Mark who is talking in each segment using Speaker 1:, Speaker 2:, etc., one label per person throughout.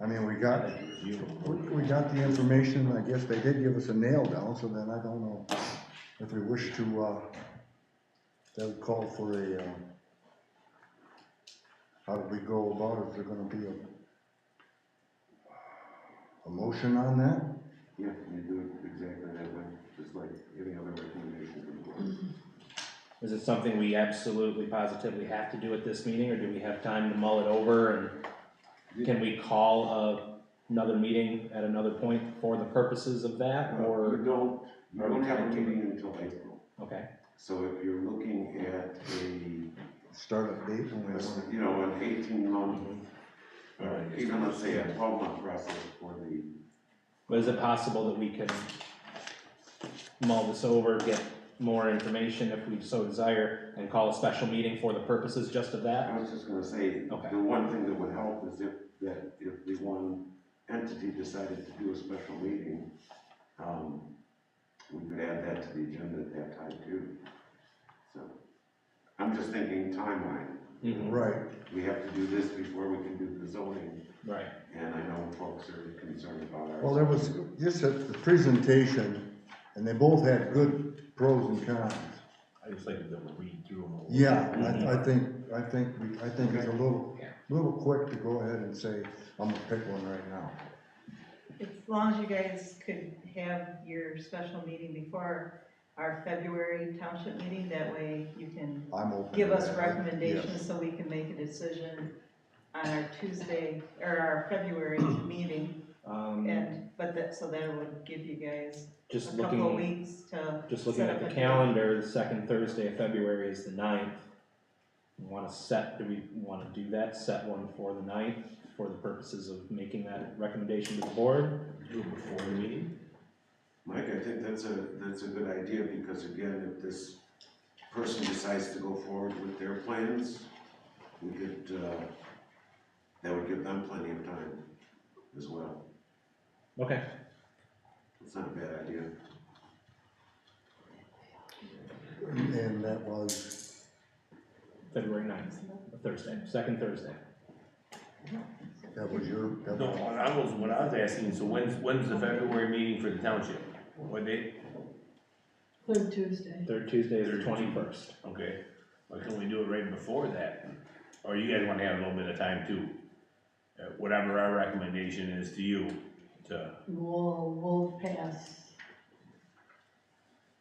Speaker 1: I mean, we got, we we got the information, I guess they did give us a nail down, so then I don't know if we wish to, uh, that would call for a, uh, how do we go about it, is there gonna be a, a motion on that?
Speaker 2: Yeah, you do it exactly that way, just like any other recommendation from the board.
Speaker 3: Is it something we absolutely positively have to do at this meeting, or do we have time to mull it over and can we call a, another meeting at another point for the purposes of that,
Speaker 2: You
Speaker 3: or,
Speaker 2: don't, you
Speaker 3: Are we
Speaker 2: don't have a
Speaker 3: tied to it?
Speaker 2: meeting until April,
Speaker 3: okay?
Speaker 2: so if you're looking at a,
Speaker 1: Start a date when we want
Speaker 2: you know, an eighteen month,
Speaker 3: All right.
Speaker 2: even let's say a twelve month process for the,
Speaker 3: But is it possible that we can mull this over, get more information if we so desire, and call a special meeting for the purposes just of that?
Speaker 2: I was just gonna say,
Speaker 3: Okay.
Speaker 2: the one thing that would help is if, that if the one entity decided to do a special meeting, um, we could add that to the agenda at that time too. So, I'm just thinking timeline.
Speaker 1: to.
Speaker 3: Mhm,
Speaker 1: Right,
Speaker 2: we have to do this before we can do the zoning,
Speaker 3: Right,
Speaker 2: and I know folks are concerned about ours.
Speaker 1: well, there was, just at the presentation, and they both had good pros and cons.
Speaker 4: I just like to be able to read through them.
Speaker 1: Yeah, I, I think, I think, we I think it's a little,
Speaker 3: Mm-hmm. Yeah.
Speaker 1: little quick to go ahead and say, I'm gonna pick one right now.
Speaker 5: As long as you guys could have your special meeting before our February township meeting, that way you can
Speaker 1: I'm open. to
Speaker 5: give us
Speaker 1: that.
Speaker 5: recommendations so we can make a decision on our Tuesday, or our February meeting,
Speaker 3: um,
Speaker 5: and, but that, so that would give you guys
Speaker 3: just
Speaker 5: a couple of
Speaker 3: looking,
Speaker 5: weeks to.
Speaker 3: Just looking at the calendar, the second Thursday of February is the ninth. Want to set, do we want to do that, set one for the ninth, for the purposes of making that recommendation to the board?
Speaker 4: Do it before the meeting.
Speaker 2: Mike, I think that's a, that's a good idea, because again, if this person decides to go forward with their plans, we could, uh, that would give them plenty of time as well.
Speaker 3: Okay,
Speaker 2: It's not a bad idea.
Speaker 1: And that was,
Speaker 3: February ninth, Thursday, second Thursday.
Speaker 1: that was your, that
Speaker 4: No,
Speaker 1: was,
Speaker 4: what I was, what I was asking, so when's, when's the February meeting for the township? What date?
Speaker 6: Third Tuesday.
Speaker 3: Third Tuesday is the
Speaker 4: Third.
Speaker 3: twenty-first.
Speaker 4: Okay, why can't we do it right before that? Or you guys wanna have a little bit of time too? Uh, Whatever our recommendation is to you, to,
Speaker 6: We'll, we'll pass.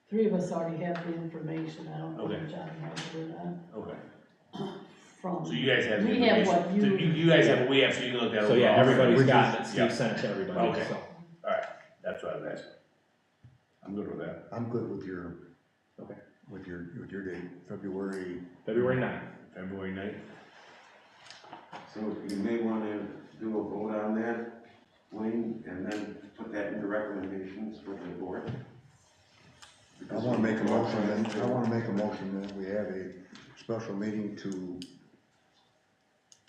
Speaker 6: Three of us already have the information, I don't know
Speaker 4: Okay.
Speaker 6: if John has it or not,
Speaker 4: okay,
Speaker 6: from.
Speaker 4: so you guys have the
Speaker 6: We have
Speaker 4: information.
Speaker 6: what
Speaker 4: So
Speaker 6: you-
Speaker 4: You guys have, what we have, so you can look at it.
Speaker 3: So yeah,
Speaker 4: overall.
Speaker 3: everybody's
Speaker 1: We
Speaker 3: got it,
Speaker 4: just-
Speaker 3: Steve sent it to everybody,
Speaker 4: Okay.
Speaker 3: so.
Speaker 4: That's what I was asking. I'm good with that.
Speaker 1: I'm good with your.
Speaker 3: Okay.
Speaker 1: With your, with your date, February,
Speaker 3: February ninth,
Speaker 4: February ninth?
Speaker 2: So you may wanna do a vote on that, Wayne, and then put that into recommendations for the board.
Speaker 1: I wanna make a motion, and I wanna make a motion that we have a special meeting to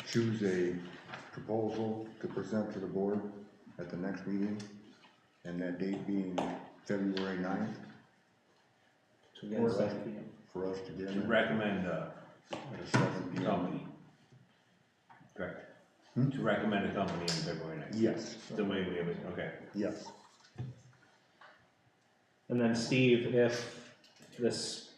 Speaker 1: choose a proposal to present to the board at the next meeting, and that date being February ninth,
Speaker 3: so again,
Speaker 1: Or-
Speaker 3: seven P M.
Speaker 1: for us to get
Speaker 4: To
Speaker 1: in at
Speaker 4: recommend, uh,
Speaker 1: at seven
Speaker 4: a
Speaker 1: P M.
Speaker 4: company. Correct.
Speaker 1: Hmm?
Speaker 4: To recommend a company on February ninth.
Speaker 1: Yes,
Speaker 4: The way we have it, okay.
Speaker 1: yes.
Speaker 3: And then Steve, if this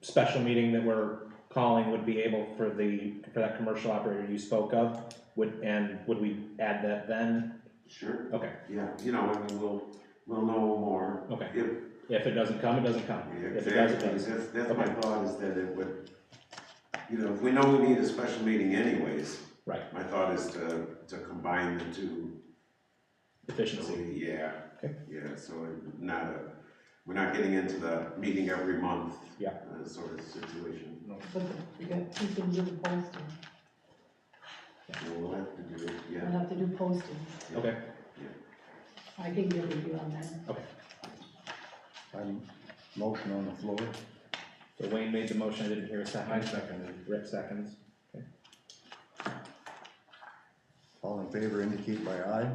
Speaker 3: special meeting that we're calling would be able for the, for that commercial operator you spoke of, would, and would we add that then?
Speaker 2: Sure.
Speaker 3: Okay,
Speaker 2: Yeah, you know, and then we'll, we'll know more.
Speaker 3: okay.
Speaker 2: If,
Speaker 3: If it doesn't come, it doesn't come. If it does, it
Speaker 2: exactly,
Speaker 3: does.
Speaker 2: that's, that's my thought, is that it would, you know, if we know we need a special meeting anyways.
Speaker 3: Right.
Speaker 2: My thought is to, to combine the two, so
Speaker 3: Efficiency.
Speaker 2: we- yeah.
Speaker 3: Okay.
Speaker 2: Yeah, so it- not a, we're not getting into the meeting every month.
Speaker 3: Yeah.
Speaker 2: uh, Sort of situation,
Speaker 6: But we got, two things do the posting,
Speaker 2: So we'll have to do it,
Speaker 6: we'll
Speaker 2: yeah.
Speaker 6: have to do posting,
Speaker 3: Okay,
Speaker 6: I can get with you on that.
Speaker 1: I'm, motion on the floor,
Speaker 3: so Wayne made the motion, I didn't hear a second. I seconded. Rick seconds.
Speaker 1: all in favor indicate by aye.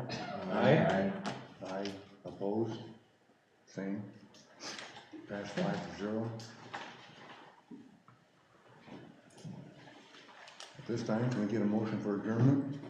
Speaker 4: 哎
Speaker 3: Aye.
Speaker 1: Aye, opposed, same. Pass five to zero. At this time, can we get a motion for adjournment?